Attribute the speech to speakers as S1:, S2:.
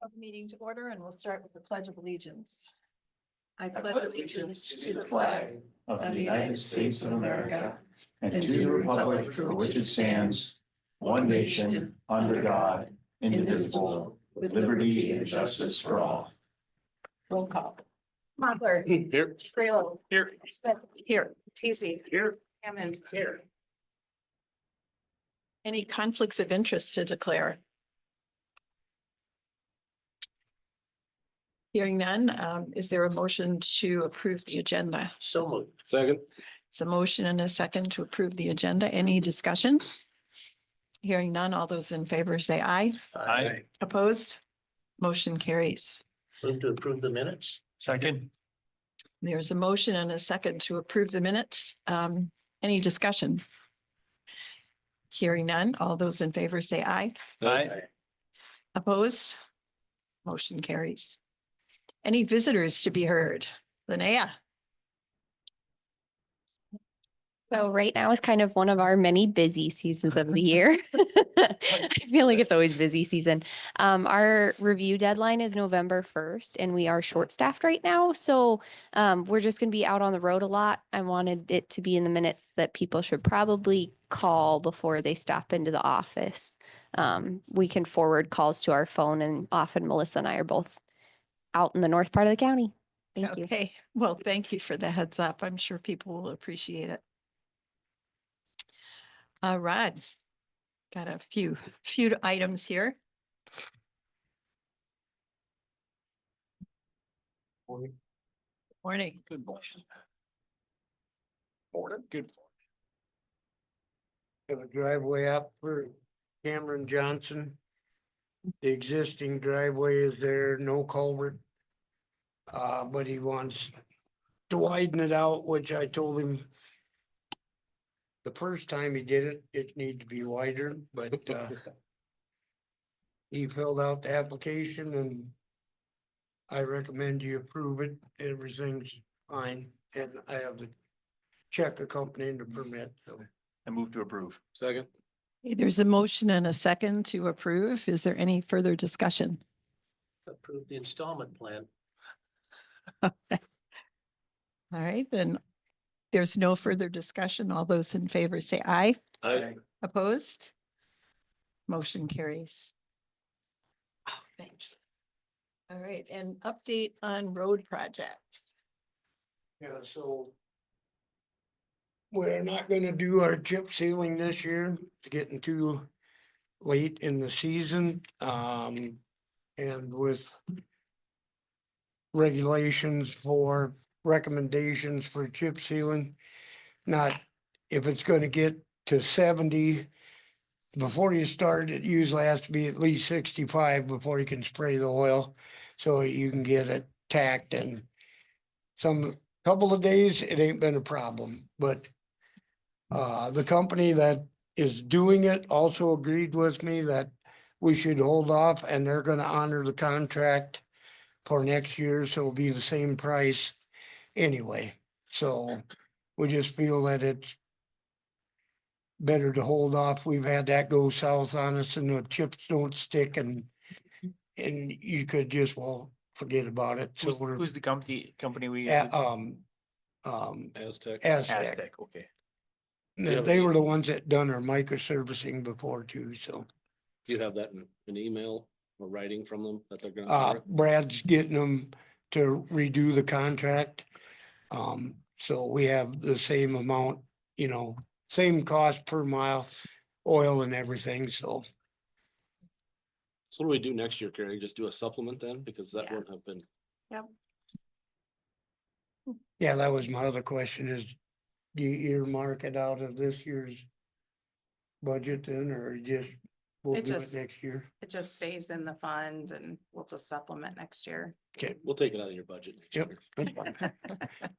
S1: Call the Meeting to order and we'll start with the pledge of allegiance. I
S2: I
S1: pledge allegiance to the flag
S2: of the United States of America and to the republic for which it stands, one nation, under God, indivisible, with liberty and justice for all.
S1: Roll call.
S3: Mochler.
S2: Here.
S3: Graylow.
S2: Here.
S3: Smith. Here. Teasy. Here. Hammond. Here.
S1: Any conflicts of interest to declare? Hearing none, um, is there a motion to approve the agenda?
S4: So moved.
S5: Second,
S1: It's a motion and a second to approve the agenda. Any discussion? Hearing none, all those in favor say aye.
S2: Aye.
S1: Opposed? Motion carries.
S4: Move to approve the minutes?
S2: Second.
S1: There's a motion and a second to approve the minutes. Um, any discussion? Hearing none, all those in favor say aye.
S2: Aye.
S1: Opposed? Motion carries. Any visitors to be heard? Linnea?
S6: So right now is kind of one of our many busy seasons of the year. I feel like it's always busy season. Um, our review deadline is November first and we are short staffed right now. So um, we're just gonna be out on the road a lot. I wanted it to be in the minutes that people should probably call before they stop into the office. Um, we can forward calls to our phone and often Melissa and I are both out in the north part of the county. Thank you.
S1: Okay, well, thank you for the heads up. I'm sure people will appreciate it. Uh, Rod, got a few, few items here. Morning.
S2: Good motion. Morning. Good.
S7: have a driveway up for Cameron Johnson. The existing driveway is there, no culvert. Uh, but he wants to widen it out, which I told him the first time he did it, it needed to be wider, but, uh, he filled out the application and I recommend you approve it. Everything's fine, and I have the check accompanying the permit, so.
S2: I move to approve.
S5: second,
S1: Okay, There's a motion and a second to approve. Is there any further discussion?
S4: Approve the installment plan?
S1: All right, then there's no further discussion. All those in favor say aye.
S2: Aye.
S1: Opposed? Motion carries. Oh, thanks. All right, and update on road projects.
S7: Yeah, so. We're not gonna do our chip sealing this year, it's getting too late in the season, um, and with. Regulations for recommendations for chip sealing, not if it's gonna get to seventy. Before you start, it usually has to be at least sixty-five before you can spray the oil, so you can get it tacked and. Some couple of days, it ain't been a problem, but uh, the company that is doing it also agreed with me that we should hold off and they're gonna honor the contract for next year, so it'll be the same price anyway. So we just feel that it's better to hold off. We've had that go south on us and the chips don't stick and and you could just, well, forget about it. So
S2: Who's,
S7: we're-
S2: who's the company, company we?
S7: yeah, um, um,
S5: Aztec.
S7: Aztec.
S2: Aztec, okay.
S5: Yeah,
S7: They-
S5: but
S7: They
S5: you-
S7: were the ones that done our microservicing before too, so.
S5: You have that in an email or writing from them that they're gonna. honor
S7: Uh,
S5: it?
S7: Brad's getting them to redo the contract. Um, so we have the same amount, you know, same cost per mile, oil and everything, so.
S5: So what do we do next year, Carrie? Just do a supplement then? Because that
S6: Yeah.
S5: won't have been,
S7: Yeah, that was my other question is, do you earmark it out of this year's budget then, or just we'll
S3: It
S7: do it
S3: just-
S7: next year?
S3: It just stays in the fund and we'll just supplement next year.
S5: we'll take it out of your budget. next
S7: Yep.
S5: year.
S7: That's fine.